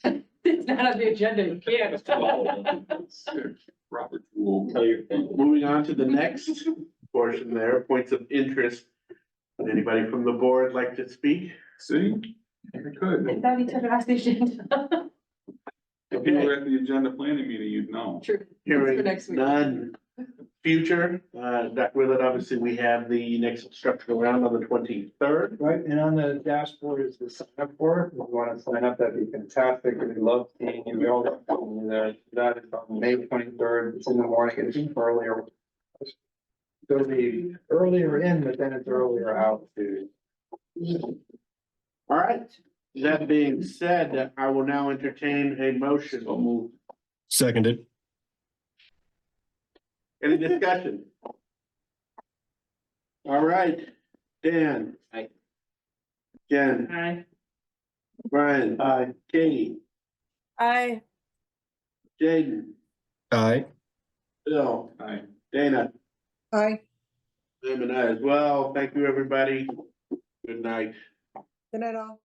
It's not on the agenda, you can't. Robert Rule. Tell your family. Moving on to the next portion there, points of interest. Would Anybody from the board like to speak? See, if you could, That we took it off the agenda. if you were at the agenda planning meeting, you'd know. True. Hearing for next week. none. Future, uh, Dr. Willett, obviously, we have the next structural round on the twenty-third. Right, and on the dashboard is the sign up for it. If you wanna sign up, that'd be fantastic. We'd love seeing you. We all love seeing you there. That is on May twenty-third. It's in the morning. It's earlier. It'll be earlier in, but then it's earlier out too. All right, that being said, I will now entertain a motion. So moved. Seconded. Any discussion? All right, Dan. Aye. Jen, Aye. Brian. Aye. Katie, Aye. Jaden, Aye. Bill. Aye. Dana, Aye. I'm an aye as well. Thank you, everybody. Good night. Good night all.